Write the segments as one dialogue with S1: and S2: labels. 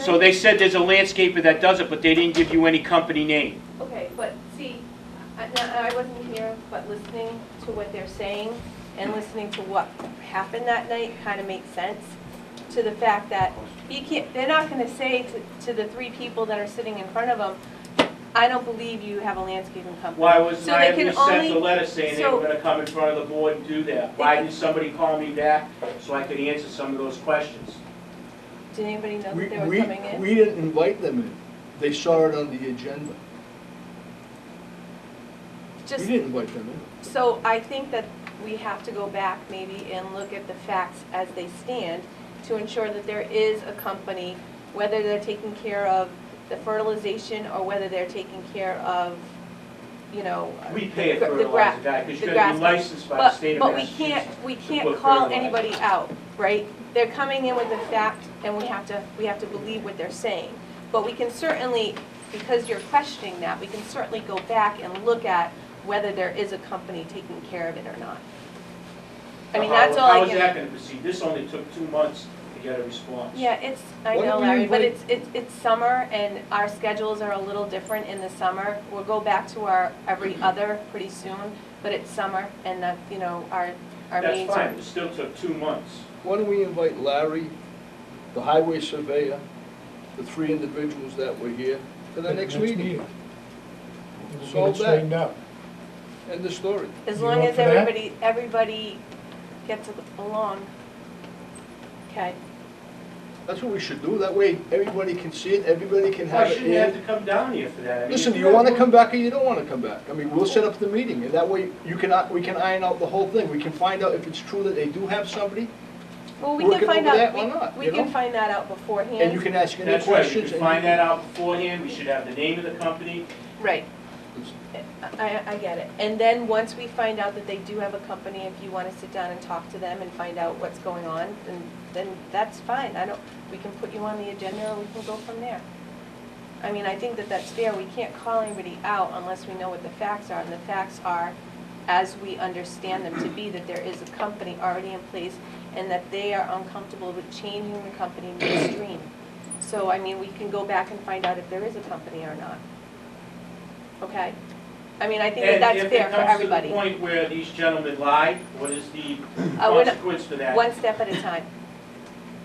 S1: So they said there's a landscaper that does it, but they didn't give you any company name.
S2: Okay, but see, I, now, I wasn't here, but listening to what they're saying and listening to what happened that night kind of makes sense to the fact that you can't, they're not gonna say to, to the three people that are sitting in front of them, I don't believe you have a landscaping company.
S1: Why wasn't
S2: So
S1: I
S2: they
S1: at
S2: can
S1: least sent
S2: only-
S1: a letter saying they
S2: so-
S1: were gonna come in front of the board and do that?
S2: They
S1: Why
S2: can-
S1: didn't somebody call me back so I could answer some of those questions?
S2: Did anybody know
S3: We,
S2: that they were
S3: we,
S2: coming in?
S3: we didn't invite them in. They saw it on the agenda. We
S2: Just,
S3: didn't invite them in.
S2: so I think that we have to go back maybe and look at the facts as they stand to ensure that there is a company, whether they're taking care of the fertilization or whether they're taking care of, you know.
S1: We pay a
S2: The gra- the
S1: fertilizer guy, because
S2: the
S1: you
S2: grass-
S1: gotta be licensed by the
S2: But,
S1: state of
S2: but we
S1: Massachusetts.
S2: can't, we can't
S1: put
S2: call
S1: fertilizer.
S2: anybody out, right? They're coming in with a fact and we have to, we have to believe what they're saying. But we can certainly, because you're questioning that, we can certainly go back and look at whether there is a company taking care of it or not. I mean,
S1: How-
S2: that's all I
S1: How
S2: can-
S1: is that gonna proceed? This only took two months to get a response.
S2: Yeah, it's, I
S3: Why
S2: know
S3: don't we
S2: Larry, but
S3: invite-
S2: it's, it's, it's summer and our schedules are a little different in the summer. We'll go back to our every other pretty soon, but it's summer and that, you know, our, our
S1: That's
S2: meetings are.
S1: fine, it still took two months.
S3: Why don't we invite Larry, the highway surveyor, the three individuals that were here, to the next meeting?
S4: We'll get
S3: Solve
S4: it
S3: that.
S4: straightened out.
S3: End of story.
S2: As
S4: You
S2: long
S4: up
S2: as
S4: for that?
S2: everybody, everybody gets a- along. Okay,
S3: That's what we should do. That way, everybody can see it, everybody can have
S1: Why
S3: it.
S1: shouldn't you have to
S3: And
S1: come down here for that? I mean,
S3: Listen,
S1: if
S3: you wanna
S1: got-
S3: come back or you don't wanna come back. I mean, we'll set up the meeting, and that way, you can, uh, we can iron out the whole thing. We can find out if it's true that they do have somebody,
S2: well, we
S3: Work
S2: can
S3: it
S2: find
S3: over
S2: out,
S3: that or not,
S2: we, we
S3: you
S2: can
S3: know?
S2: find that out beforehand.
S3: and you can ask any
S1: That's right, you
S3: questions.
S1: could
S3: and
S1: find that out beforehand, we should have the name of the company.
S2: Right,
S3: It's-
S2: I, I get it. And then, once we find out that they do have a company, if you wanna sit down and talk to them and find out what's going on, then, then that's fine. I don't, we can put you on the agenda or we can go from there. I mean, I think that that's fair. We can't call anybody out unless we know what the facts are, and the facts are, as we understand them to be, that there is a company already in place and that they are uncomfortable with changing the company midstream. So, I mean, we can go back and find out if there is a company or not. Okay? I mean, I think that that's fair for everybody.
S1: And if it comes to the point where these gentlemen lied, what is the
S2: Uh, we're not-
S1: consequence for that?
S2: One step at a time.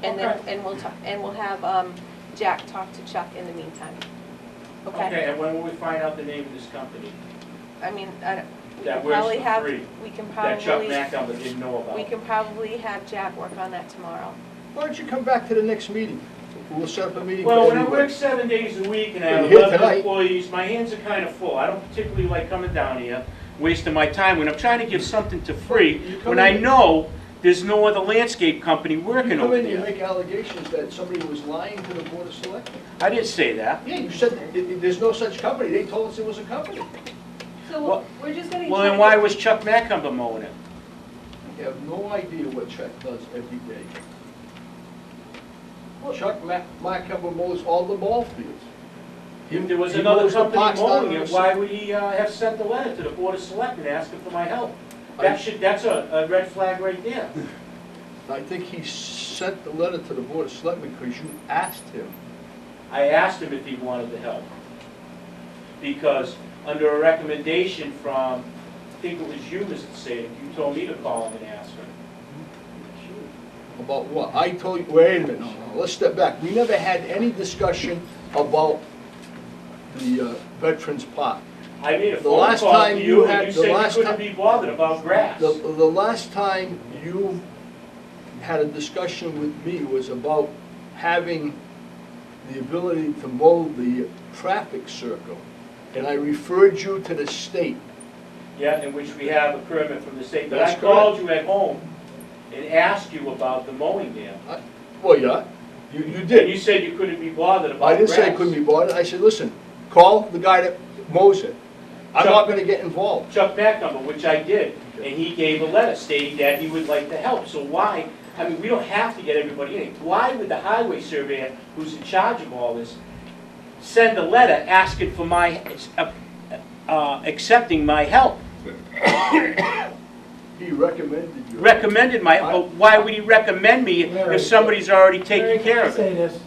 S2: And then,
S1: Okay.
S2: and we'll talk, and we'll have, um, Jack talk to Chuck in the meantime. Okay?
S1: Okay, and when will we find out the name of this company
S2: I mean, I don't, we
S1: That
S2: can
S1: works
S2: probably
S1: for
S2: have,
S1: free.
S2: we can
S1: that Chuck
S2: probably,
S1: MacDonald didn't know about?
S2: we can probably have Jack work on that tomorrow.
S3: Why don't you come back to the next meeting? We'll set up a meeting for
S1: Well, when I
S3: everybody.
S1: work seven days a week and I
S3: You're
S1: have
S3: here
S1: eleven
S3: tonight.
S1: employees, my hands are kind of full. I don't particularly like coming down here, wasting my time when I'm trying to give something to free,
S3: You come
S1: when I
S3: in-
S1: know there's no other landscape company working
S3: You come
S1: over
S3: in, you
S1: there.
S3: make allegations that somebody was lying to the Board of Selectmen.
S1: I didn't say that.
S3: Yeah, you said, that th- there's no such company, they told us there was a company.
S1: Well-
S2: So we're just gonna.
S1: Well, then why was Chuck Macumber mowing it?
S3: You have no idea what Chuck does every day.
S2: Well-
S3: Chuck Ma- Macumber mows all the ball fields.
S1: If there was
S3: He
S1: another
S3: mows the
S1: company
S3: parks down
S1: mowing
S3: on
S1: it,
S3: the
S1: why
S3: side.
S1: would he uh, have sent the letter to the Board of Selectmen asking for my help?
S3: I-
S1: That should, that's a, a red flag right there.
S3: I think he sent the letter to the Board of Selectmen because you asked him.
S1: I asked him if he wanted the help. Because under a recommendation from, I think it was you, Mr. Sadek, you told me to call him and ask him.
S3: About what? I told you, wait a minute, no, no, let's step back. We never had any discussion about the uh, Veterans Park.
S1: I made a
S3: The
S1: phone
S3: last
S1: call
S3: time
S1: to
S3: you
S1: you
S3: had-
S1: and you
S3: the
S1: said you
S3: last
S1: couldn't
S3: ti-
S1: be bothered about grass.
S3: The, the last time you had a discussion with me was about having the ability to mold the traffic circle. And I referred you to the state.
S1: Yeah, in which we have a permit from the state. But I
S3: That's correct.
S1: called you at home and asked you about the mowing there.
S3: Well, yeah, you, you
S1: And you
S3: did.
S1: said you couldn't be bothered about
S3: I
S1: grass.
S3: didn't say I couldn't be bothered. I said, listen, call the guy that mows it. I'm not gonna get involved.
S1: Chuck Macumber, which I did, and he gave a letter stating that he would like to help. So why, I mean, we don't have to get everybody in. Why would the highway surveyor, who's in charge of all this, send a letter asking for my, uh, uh, accepting my help?
S3: He recommended you.
S1: Recommended my, but why would he recommend me if somebody's already taking care of it?
S4: Say this,